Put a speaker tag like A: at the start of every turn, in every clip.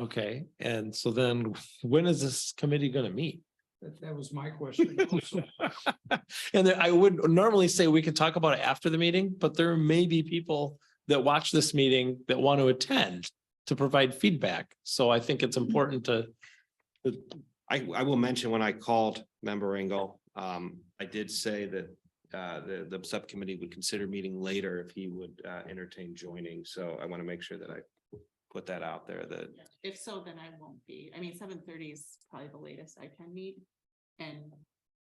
A: Okay, and so then when is this committee gonna meet?
B: That, that was my question also.
A: And then I would normally say we could talk about it after the meeting, but there may be people that watch this meeting that want to attend to provide feedback. So I think it's important to,
C: I, I will mention when I called member Engel, um, I did say that. Uh, the, the subcommittee would consider meeting later if he would, uh, entertain joining, so I want to make sure that I. Put that out there that,
D: If so, then I won't be. I mean, seven thirty is probably the latest I can meet. And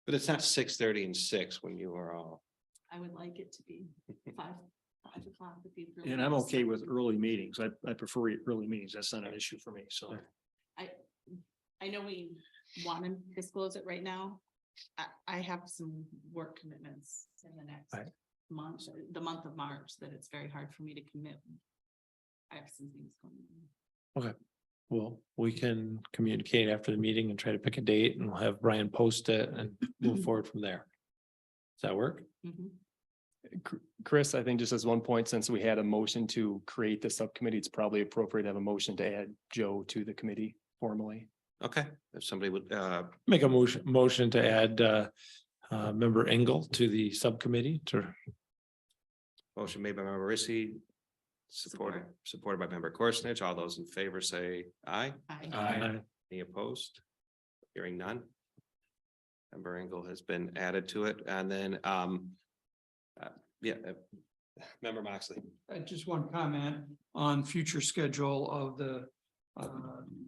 C: but it's not six thirty and six when you are all.
D: I would like it to be five, five o'clock would be. really
E: And I'm
D: nice.
E: okay with early meetings. I, I prefer e-, early meetings. That's not an issue for me, so.
D: I know we want to disclose it right now. I, I have some work commitments in the next
A: Right.
D: month, the month of March, that it's very hard for me to commit. I have some things going on.
A: well, we can communicate after the meeting and try to pick a date and we'll have Brian post it and move forward from there. Does that work?
D: Mhm.
F: Chris, I think just as one point, since we had a motion to create the subcommittee, it's probably appropriate to have a motion to add Joe to the committee formally.
C: Okay, if somebody would, uh,
A: Make a motion, motion to add uh, uh, member Engel to the subcommittee to
C: motion made by member Rissy. Supported, supported by member Korsnich. All those in favor say aye.
D: I,
A: Aye.
C: Any opposed? Hearing none. Member Engel has been added to it, and then, um, uh, yeah, uh, member Moxley.
B: I Uh, just one comment on future schedule of the um,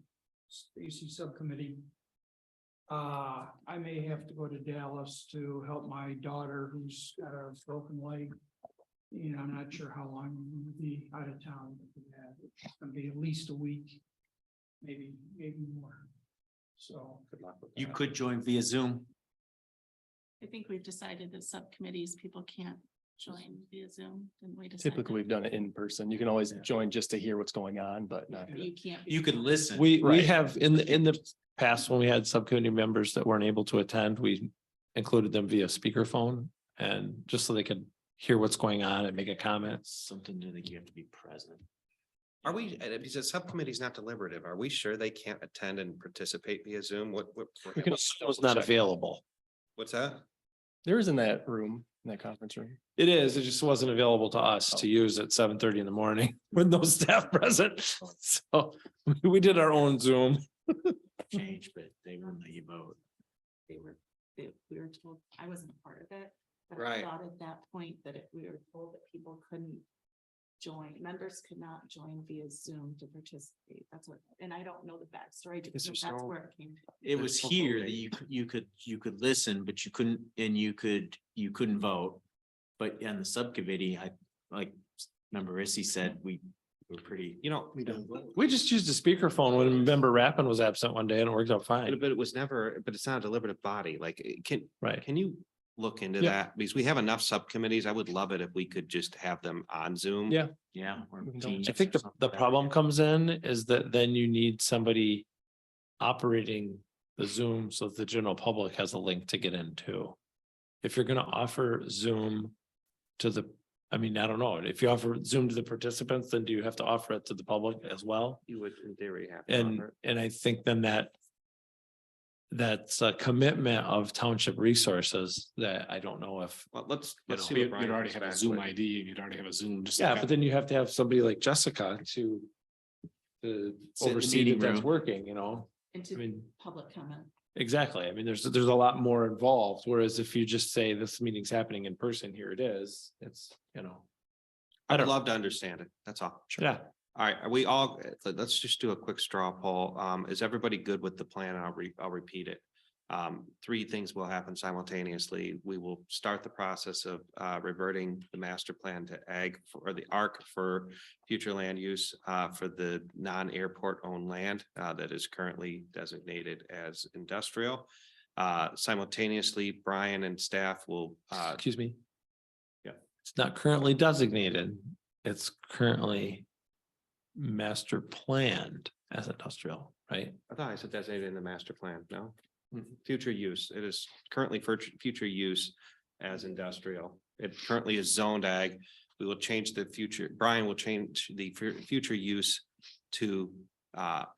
B: Stacy Subcommittee. Uh, I may have to go to Dallas to help my daughter who's got a broken leg. And I'm not sure how long we will be out of town. for that. It's gonna be at least a week, maybe, maybe more. So.
C: Good luck with
G: You
C: that.
G: could join via Zoom.
D: I think we've decided that subcommittees, people can't join via Zoom, didn't we? decide that?
F: Typically, we've done it in person. You can always join just to hear what's going on, but uh, not.
D: You can't.
G: You could listen.
A: We, we
F: Right.
A: have, in the, in the past, when we had subcommittee members that weren't able to attend, we included them via speakerphone. And just so they could hear what's going on and make a comment.
G: Something to think you have to be present.
C: Are we, uh, because the subcommittee's not deliberative, are we sure they can't attend and participate via Zoom? What, what?
A: We can assume it's not available.
C: What's that?
F: There is in that room, in that conference room.
A: It is, it just wasn't available to us to use at seven thirty in the morning with no staff present. So we did our own Zoom.
G: Change, but they wouldn't let you vote.
D: they were, they, we were told, I wasn't a part of it. but I
C: Right.
D: Thought at that point that if we were told that people couldn't join, members could not join via Zoom to participate, that's what, and I don't know the backstory, because
C: there's
D: that's
C: no-
D: where it came from.
G: It was here that you, c- you could, you could listen, but you couldn't, and you could, you couldn't vote. But on the subcommittee, I, like, remember Rissy said, we were pretty.
C: You know,
A: We just used a speakerphone when member Rappin was absent one day and it worked out fine,
C: but it was never, but it's not a deliberative body, like, it can,
A: right?
C: Can you look into
A: Yeah.
C: that? Because we have enough subcommittees. I would love it if we could just have them on Zoom.
A: Yeah.
G: Yeah. or
F: We can double
G: Teams
A: I think
G: or
A: the,
G: something
A: the
G: like that.
A: problem comes in is that then you need somebody operating the Zoom so that the general public has a link to get into. If you're gonna offer Zoom to the, I mean, I don't know, if you offer Zoom to the participants, then do you have to offer it to the public as well?
C: You would in theory have. to
A: And,
C: offer it.
A: and I think then that that's a commitment of township resources that I don't know if
C: Well, let's,
A: You
C: let's
A: know,
C: see.
A: you'd-
C: what Brian comes back with.
H: and you'd already have a Zoom, just.
A: Yeah, but then you have to have somebody like Jessica to. To
G: Sit in the
A: oversee that
G: meeting
A: that's
G: room.
A: working, you know, I
D: Into
A: mean,
D: public comment,
A: exactly, I mean, there's, there's a lot more involved, whereas if you just say this meeting's happening in person, here it is, it's, you know. I
C: I'd
A: don't, know.
C: love to understand it. That's all.
A: yeah,
C: All right, are we all, let- let's just do a quick straw poll. Um, is everybody good with the plan? I'll re, I'll repeat it. Um, three things will happen simultaneously. We will start the process of uh reverting the master plan to ag for- or the ARC for future land use uh for the non-airport owned land uh that is currently designated as industrial. Uh, simultaneously, Brian and staff will uh
A: excuse me.
C: Yeah.
A: It's not currently designated, it's currently. Master planned as industrial, right?
C: I thought I said designated in the master plan, no? Future use, it is currently for future use as industrial. It currently is zoned ag. We will change the future, Brian will change the fu- future use to uh